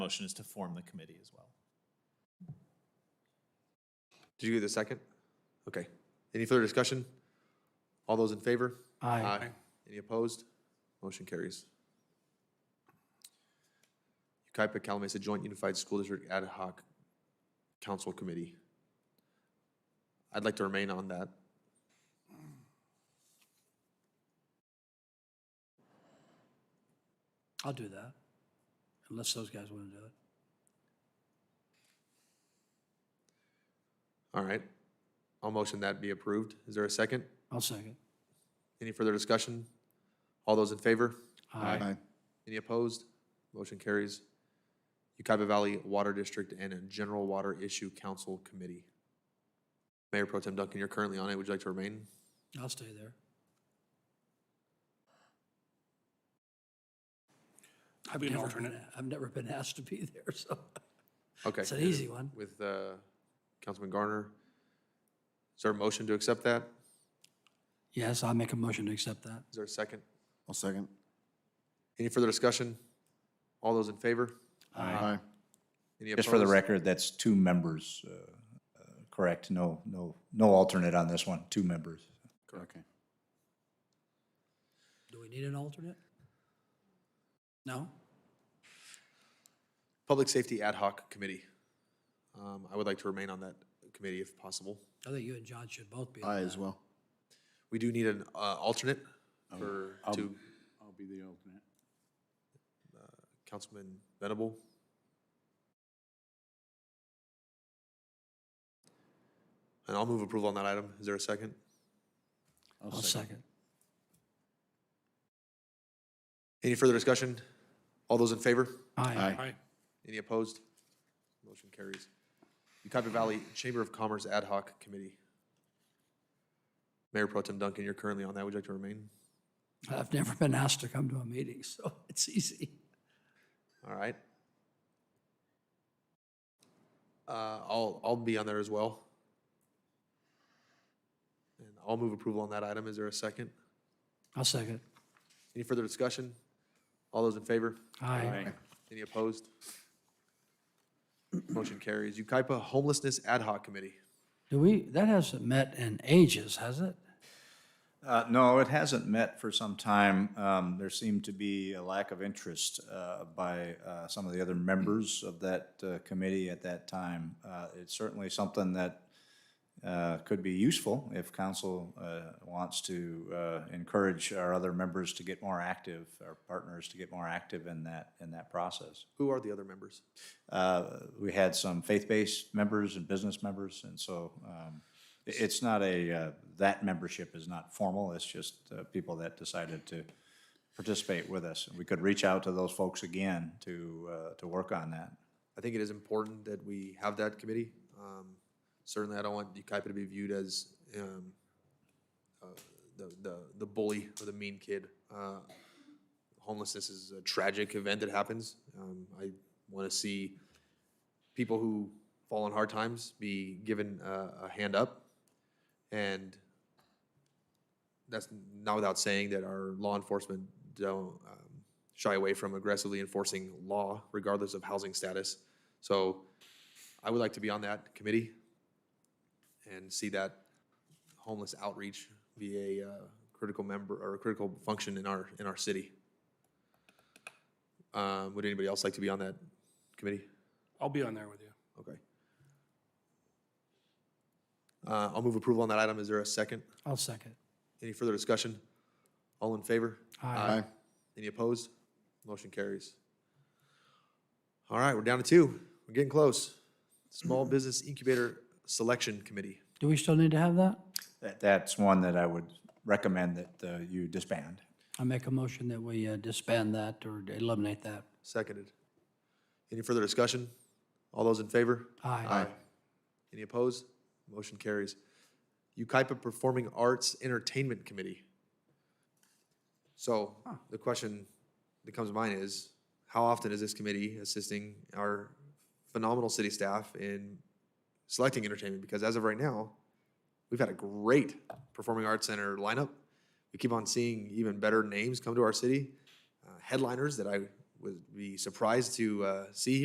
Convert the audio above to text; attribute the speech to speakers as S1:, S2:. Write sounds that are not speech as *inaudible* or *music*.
S1: motion is to form the committee as well.
S2: Did you get the second? Okay. Any further discussion? All those in favor? Aye. Any opposed? Motion carries. Ucaipa Calumet Joint Unified School District Ad Hoc Council Committee. I'd like to remain on that.
S3: I'll do that, unless those guys want to do it.
S2: All right. I'll motion that be approved. Is there a second?
S3: I'll second.
S2: Any further discussion? All those in favor?
S3: Aye.
S2: Any opposed? Motion carries. Ucaipa Valley Water District and General Water Issue Council Committee. Mayor Pro Tem Duncan, you're currently on it. Would you like to remain?
S3: I'll stay there. I've
S4: Be an
S3: never
S4: alternate.
S3: been- I've never been *laughs* asked to be there, so
S2: Okay.
S3: it's an easy one.
S2: With uh, Councilman Garner. Is there a motion to accept that?
S3: Yes, I make a motion to accept that.
S2: Is there a second?
S5: I'll second.
S2: Any further discussion? All those in favor?
S5: Aye.
S2: Any
S6: Just for the
S2: opposed?
S6: record, that's two members, uh, uh, correct? No, no, no alternate on this one, two members.
S5: Okay.
S3: Do we need an alternate? No?
S2: Public Safety Ad Hoc Committee. Um, I would like to remain on that committee if possible.
S3: I think you and John should both be. on
S5: Aye
S3: that.
S5: as well.
S2: We do need an uh, alternate
S6: Um,
S2: for, to
S5: I'll be the alternate.
S2: Councilman Venable. And I'll move approval on that item. Is there a second?
S3: I'll second.
S2: Any further discussion? All those in favor?
S3: Aye.
S5: Aye.
S2: Any opposed? Motion carries. Ucaipa Valley Chamber of Commerce Ad Hoc Committee. Mayor Pro Tem Duncan, you're currently on that. Would you like to remain?
S3: I've never been asked to come to a meeting, *laughs* so it's easy.
S2: All right. Uh, I'll, I'll be on there as well. And I'll move approval on that item. Is there a second?
S3: I'll second.
S2: Any further discussion? All those in favor?
S3: Aye.
S2: Any opposed? Motion carries. Ukaipa Homelessness Ad Hoc Committee.
S3: Do we, that hasn't met in ages, has it?
S6: Uh, No, it hasn't met for some time. Um, There seemed to be a lack of interest uh, by uh, some of the other members of that uh, committee at that time. Uh, It's certainly something that uh, could be useful if council uh, wants to uh, encourage our other members to get more active, our partners to get more active in that, in that process.
S2: Who are the other members?
S6: Uh, we had some faith-based members and business members, and so um, i- it's not a, uh, that membership is not formal, it's just uh, people that decided to participate with us. We could reach out to those folks again to, uh, to work on that.
S2: I think it is important that we have that committee. Um, Certainly, I don't want Ukaipa to be viewed as um, uh, the the the bully or the mean kid. Uh, Homelessness is a tragic event that happens. Um, I want to see people who fall on hard times be given a a hand up. And that's not without saying that our law enforcement don't um, shy away from aggressively enforcing law regardless of housing status. So I would like to be on that committee and see that homeless outreach be a uh, critical member or a critical function in our, in our city. Um, Would anybody else like to be on that committee?
S4: I'll be on there with you.
S2: Okay. Uh, I'll move approval on that item. Is there a second?
S3: I'll second.
S2: Any further discussion? All in favor?
S5: Aye.
S2: Any opposed? Motion carries. All right, we're down to two. We're getting close. Small Business Incubator Selection Committee.
S3: Do we still need to have that?
S6: That, that's one that I would recommend that uh, you disband.
S3: I make a motion that we uh, disband that or eliminate that.
S2: Seconded. Any further discussion? All those in favor?
S3: Aye.
S2: Any opposed? Motion carries. Ukaipa Performing Arts Entertainment Committee. So the question that comes to mind is, how often is this committee assisting our phenomenal city staff in selecting entertainment? Because as of right now, we've had a great performing arts center lineup. We keep on seeing even better names come to our city, uh, headliners that I would be surprised to uh, see